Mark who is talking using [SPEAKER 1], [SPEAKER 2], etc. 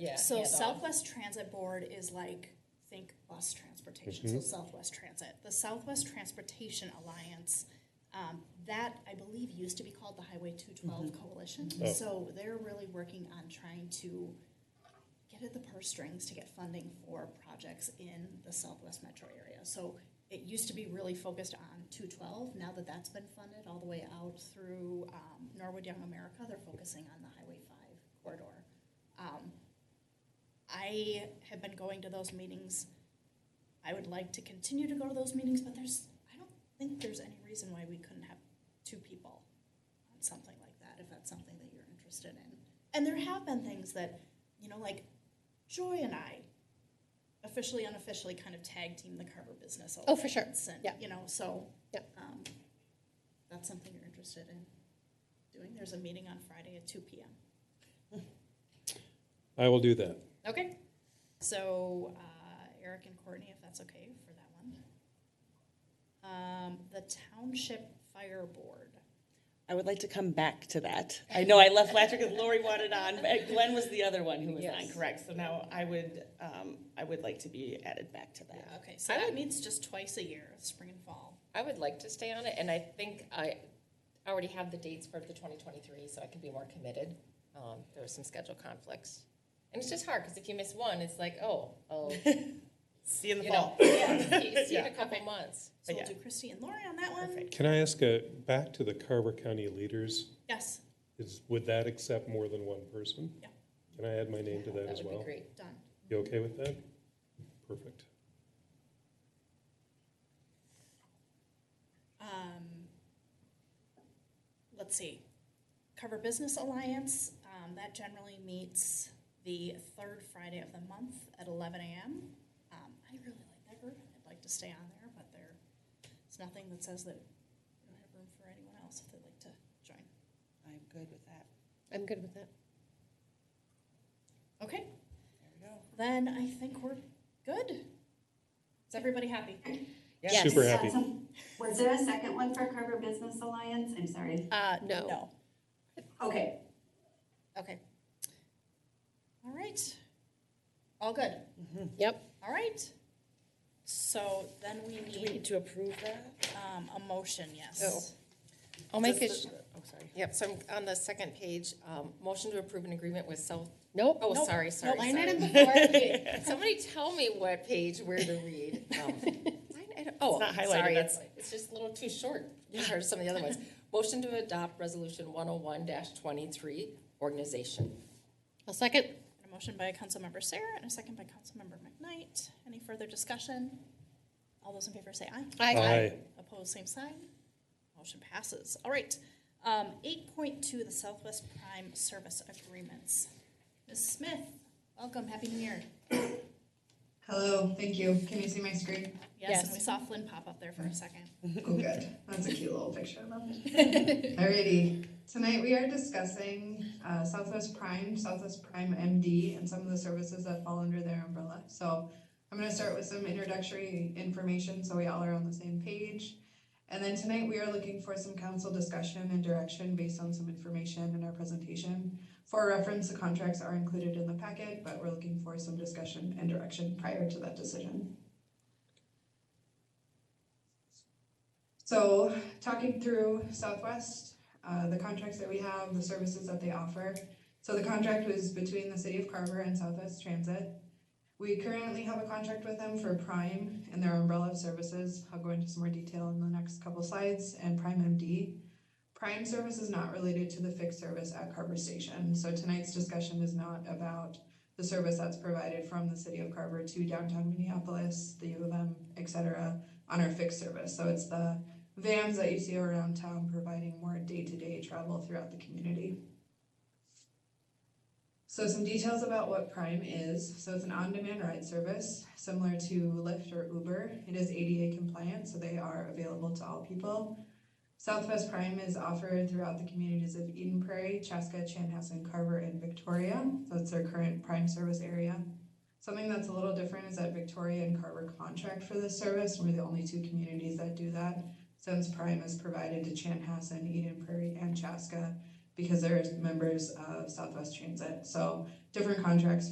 [SPEAKER 1] Yeah.
[SPEAKER 2] So
[SPEAKER 1] hands-on.
[SPEAKER 2] Southwest Transit Board is like, think bus transportation, so Southwest Transit. The Southwest Transportation Alliance, um, that I believe used to be called the Highway two twelve Coalition.
[SPEAKER 3] Oh.
[SPEAKER 2] So they're really working on trying to get at the purse strings to get funding for projects in the Southwest metro area. So it used to be really focused on two twelve, now that that's been funded all the way out through, um, Norwood Young America, they're focusing on the Highway five corridor. Um, I have been going to those meetings. I would like to continue to go to those meetings, but there's, I don't think there's any reason why we couldn't have two people on something like that, if that's something that you're interested in. And there have been things that, you know, like Joy and I officially, unofficially kind of tag team the Carver Business
[SPEAKER 4] Oh, for sure.
[SPEAKER 2] Alliance. and,
[SPEAKER 4] Yeah.
[SPEAKER 2] You know, so.
[SPEAKER 4] Yeah.
[SPEAKER 2] um, That's something you're interested in doing. There's a meeting on Friday at two PM.
[SPEAKER 3] I will do that.
[SPEAKER 2] Okay. So uh, Eric and Courtney, if that's okay for that one. Um, the Township Fire Board.
[SPEAKER 5] I would like to come back to that. I know I left last year because Lori wanted on, but Glenn was the other one who was on,
[SPEAKER 1] Yes.
[SPEAKER 5] correct? So now I would, um, I would like to be added back to that.
[SPEAKER 2] Okay, so
[SPEAKER 1] I
[SPEAKER 2] that
[SPEAKER 1] would-
[SPEAKER 2] meets just twice a year, spring and fall.
[SPEAKER 1] I would like to stay on it, and I think I already have the dates for the 2023, so I can be more committed. Um, there were some schedule conflicts, and it's just hard because if you miss one, it's like, oh, oh,
[SPEAKER 5] See you in the
[SPEAKER 1] you know,
[SPEAKER 5] fall.
[SPEAKER 1] yeah, see, see you in a
[SPEAKER 5] Yeah.
[SPEAKER 1] couple months.
[SPEAKER 2] So
[SPEAKER 5] But
[SPEAKER 2] we'll
[SPEAKER 5] yeah.
[SPEAKER 2] do Christy and Lori on that one.
[SPEAKER 5] Perfect.
[SPEAKER 3] Can I ask a, back to the Carver County leaders,
[SPEAKER 2] Yes,
[SPEAKER 3] is, would that accept more than one person?
[SPEAKER 2] Yeah.
[SPEAKER 3] Can I add my name to that
[SPEAKER 1] That
[SPEAKER 3] as
[SPEAKER 1] would be
[SPEAKER 3] well?
[SPEAKER 1] great.
[SPEAKER 2] done.
[SPEAKER 3] You okay with that? Perfect.
[SPEAKER 2] Um, let's see. Cover Business Alliance, um, that generally meets the third Friday of the month at 11 a.m. Um, I really like that group. I'd like to stay on there, but there, it's nothing that says that we don't have room for anyone else if they'd like to join.
[SPEAKER 5] I'm good with that.
[SPEAKER 4] I'm good with that.
[SPEAKER 2] Okay,
[SPEAKER 5] There
[SPEAKER 2] then I think we're good. Is everybody happy?
[SPEAKER 5] we go.
[SPEAKER 4] Yes.
[SPEAKER 3] Super happy.
[SPEAKER 6] Was there a second one for Carver Business Alliance? I'm sorry.
[SPEAKER 4] Uh, no.
[SPEAKER 2] No.
[SPEAKER 6] Okay,
[SPEAKER 2] Okay. All right. All good.
[SPEAKER 4] Yep.
[SPEAKER 2] All right. So then we
[SPEAKER 5] Do we
[SPEAKER 2] need
[SPEAKER 5] need to approve that?
[SPEAKER 2] um, a motion, yes.
[SPEAKER 1] Oh. I'll make it.
[SPEAKER 5] Does the- Oh, sorry.
[SPEAKER 1] Yep. So I'm on the second page. Um, motion to approve an agreement with South.
[SPEAKER 4] Nope.
[SPEAKER 1] Oh,
[SPEAKER 2] Nope.
[SPEAKER 1] sorry, sorry.
[SPEAKER 2] Nope.
[SPEAKER 1] sorry.
[SPEAKER 2] Line item
[SPEAKER 1] Somebody tell me what page where to read. Um, line item- oh,
[SPEAKER 5] It's not highlighted,
[SPEAKER 1] sorry,
[SPEAKER 5] that's
[SPEAKER 1] it's, it's just a little too short compared to some of the other ones. Motion to adopt resolution one oh one twenty-three, organization.
[SPEAKER 4] I'll second.
[SPEAKER 2] A motion by Councilmember Sarah and a second by Councilmember McKnight. Any further discussion? All those in favor say aye.
[SPEAKER 3] Aye.
[SPEAKER 2] Opposed, same sign. Motion passes. All right. Um, eight point two, the Southwest Prime Service Agreements. Ms. Smith, welcome. Happy New Year.
[SPEAKER 7] Hello, thank you. Can you see my screen?
[SPEAKER 2] Yes, and
[SPEAKER 4] Yes.
[SPEAKER 2] we saw Flynn pop up there for a second.
[SPEAKER 7] Oh, good. That's a cute little picture of him. Alrighty, tonight we are discussing uh, Southwest Prime, Southwest Prime MD, and some of the services that fall under their umbrella. So I'm gonna start with some introductory information so we all are on the same page. And then tonight we are looking for some council discussion and direction based on some information in our presentation. For reference, the contracts are included in the packet, but we're looking for some discussion and direction prior to that decision. So, talking through Southwest, uh, the contracts that we have, the services that they offer. So the contract was between the city of Carver and Southwest Transit. We currently have a contract with them for Prime and their umbrella of services. I'll go into some more detail in the next couple slides, and Prime MD. Prime service is not related to the fixed service at Carver Station, so tonight's discussion is not about the service that's provided from the city of Carver to downtown Minneapolis, the U of M, et cetera, on our fixed service. So it's the vans that you see around town providing more day-to-day travel throughout the community. So some details about what Prime is. So it's an on-demand ride service similar to Lyft or Uber. It is ADA compliant, so they are available to all people. Southwest Prime is offered throughout the communities of Eden Prairie, Chaska, Chanhassen, Carver, and Victoria. So it's their current Prime service area. Something that's a little different is that Victoria and Carver contract for this service. We're the only two communities that do that since Prime is provided to Chanhassen, Eden Prairie, and Chaska because they're members of Southwest Transit. So different contracts